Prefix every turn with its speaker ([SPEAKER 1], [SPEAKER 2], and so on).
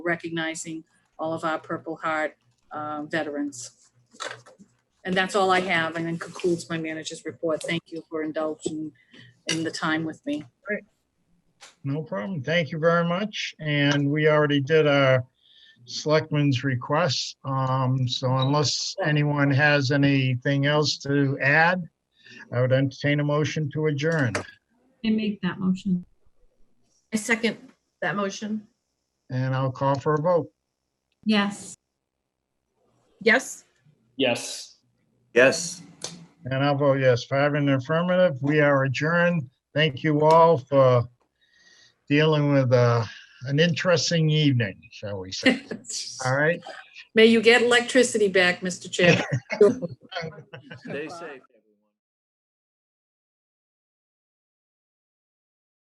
[SPEAKER 1] recognizing all of our Purple Heart uh, veterans. And that's all I have, and then concludes my manager's report. Thank you for indulging in the time with me.
[SPEAKER 2] No problem. Thank you very much. And we already did our selectmen's request. Um, so unless anyone has anything else to add, I would entertain a motion to adjourn.
[SPEAKER 3] I make that motion.
[SPEAKER 4] I second that motion.
[SPEAKER 2] And I'll call for a vote.
[SPEAKER 3] Yes.
[SPEAKER 4] Yes?
[SPEAKER 5] Yes.
[SPEAKER 6] Yes.
[SPEAKER 2] And I'll vote yes. Five in the affirmative. We are adjourned. Thank you all for dealing with, uh, an interesting evening, shall we say. All right.
[SPEAKER 1] May you get electricity back, Mr. Chair.
[SPEAKER 6] Stay safe.